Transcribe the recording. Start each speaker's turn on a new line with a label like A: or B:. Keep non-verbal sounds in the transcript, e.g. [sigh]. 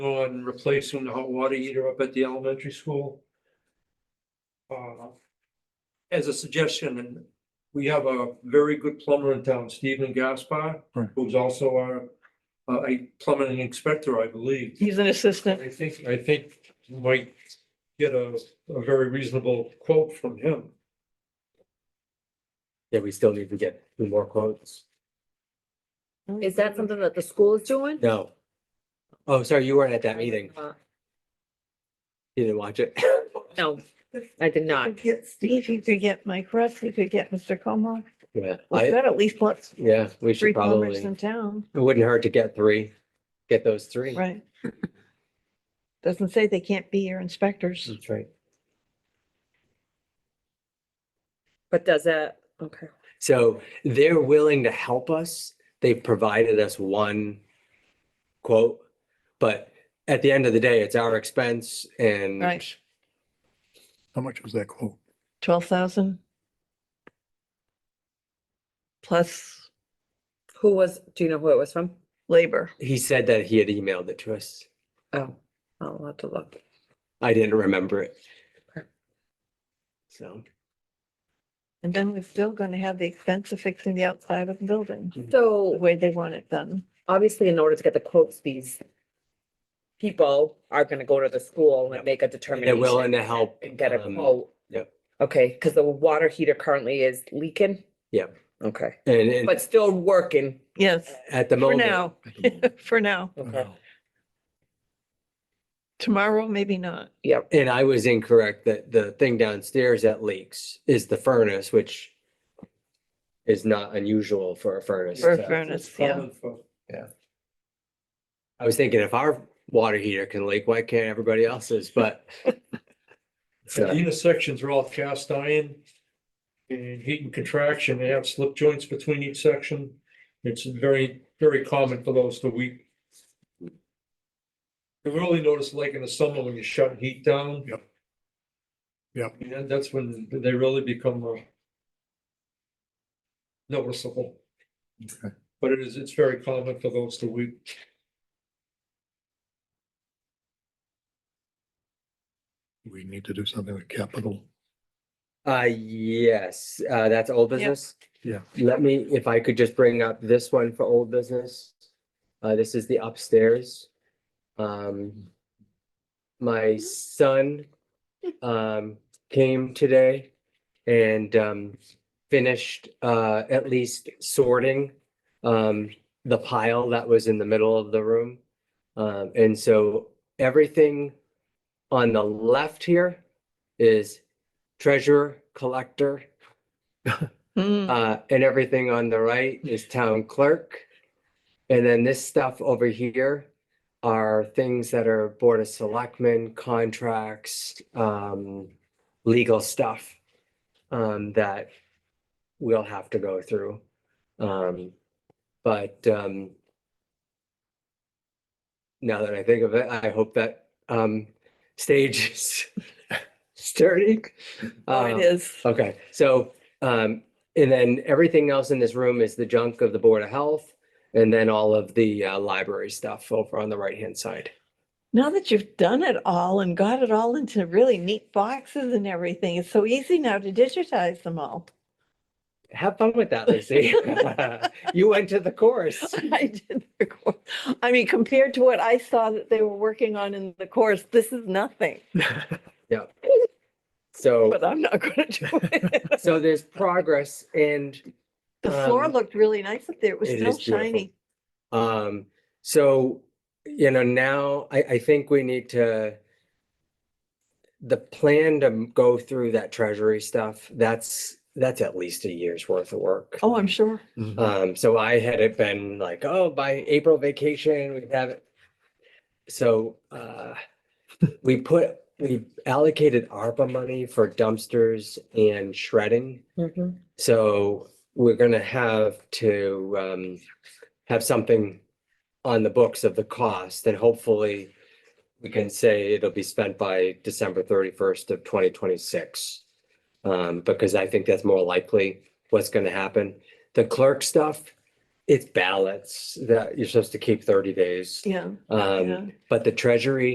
A: on replacing the hot water heater up at the elementary school. Uh, As a suggestion, and we have a very good plumber in town, Stephen Gaspar,
B: Right.
A: who's also our, uh, a plumbing inspector, I believe.
C: He's an assistant.
A: I think, I think we might get a, a very reasonable quote from him.
B: Yeah, we still need to get two more quotes.
D: Is that something that the school is doing?
B: No. Oh, sorry, you weren't at that meeting. You didn't watch it. [laughs]
D: No, I did not.
C: Could get Steve, you could get Mike Russ, you could get Mr. Como.
B: Yeah,
C: We've
B: I,
C: got at least what,
B: yeah, we
C: three
B: should
C: plumbers
B: probably,
C: in
B: it
C: town,
B: wouldn't hurt to get three, get those three.
C: right? Doesn't say they can't be your inspectors.
B: That's right.
D: But does that, okay.
B: So they're willing to help us. They provided us one quote, but at the end of the day, it's our expense and
C: Right.
E: How much was that quote?
C: Twelve thousand. Plus
D: Who was, do you know who it was from?
C: labor.
B: he said that he had emailed it to us.
D: Oh, I'll have to look.
B: I didn't remember it.
D: Okay.
B: So,
C: And then we're still gonna have the expense of fixing the outside of the building, the
D: So
C: way they want it done.
D: obviously in order to get the quotes, these people are gonna go to the school and
B: Yep.
D: make a
B: they're
D: determination.
B: willing to help.
D: And get a
B: um,
D: quote.
B: yep.
D: Okay, because the water heater currently is leaking?
B: Yep.
D: Okay,
B: And, and
D: but still working.
C: Yes,
B: at the
C: for
B: moment.
C: now, [laughs] for now.
D: Okay,
C: Tomorrow, maybe not.
D: yep.
B: And I was incorrect that the thing downstairs that leaks is the furnace, which is not unusual for a furnace.
C: For a
B: to-
C: furnace, yeah.
B: I was thinking if our water heater can leak, why can't everybody else's?
C: [laughs]
B: But
A: The
B: so,
A: intersections are all cast iron. And heat and contraction, they have slip joints between each section. It's very, very common for those to weep. You really notice like in the summer when you shut heat down.
E: Yep. Yep.
A: Yeah, that's when they really become uh, noticeable,
E: Okay.
A: but it is, it's very common for those to weep.
E: We need to do something with capital.
B: uh, yes, uh, that's old business.
E: Yeah.
B: Let me, if I could just bring up this one for old business. Uh, this is the upstairs. Um, my son, um, came today and, um, finished, uh, at least sorting, um, the pile that was in the middle of the room. Um, and so everything on the left here is treasurer, collector,
C: Hmm,
B: uh, and everything on the right is town clerk. And then this stuff over here are things that are board of selectmen, contracts, um, legal stuff. Um, that we'll have to go through. Um, but, um. Now that I think of it, I hope that, um, stage [laughs] is sturdy.
C: oh, it
B: Um,
C: is.
B: Okay, so, um, and then everything else in this room is the junk of the Board of Health. And then all of the, uh, library stuff over on the right-hand side.
C: Now that you've done it all and got it all into really neat boxes and everything, it's so easy now to digitize them all. [laughs]
B: Have fun with that, Lucy. [laughs] You went to the course.
C: I did the course. I mean, compared to what I saw that they were working on in the course, this is nothing,
B: So,
C: but I'm not gonna do
D: [laughs]
C: it.
B: so there's progress and
C: The floor
B: Um,
C: looked really nice up there. It was
B: it
C: still
B: is beautiful.
C: shiny.
B: Um, so, you know, now I, I think we need to. The plan to m- go through that treasury stuff, that's, that's at least a year's worth of work.
C: Oh, I'm sure.
B: Um, so I had it been like, oh, by April vacation, we have it. So, uh, we put, we allocated ARPA money for dumpsters and shredding.
D: Mhm.
B: So we're gonna have to um have something on the books of the cost and hopefully we can say it'll be spent by December thirty-first of twenty twenty-six. Um, because I think that's more likely what's gonna happen. The clerk stuff it's ballots that you're supposed to keep thirty days.
C: yeah. yeah.
B: Um, but the treasury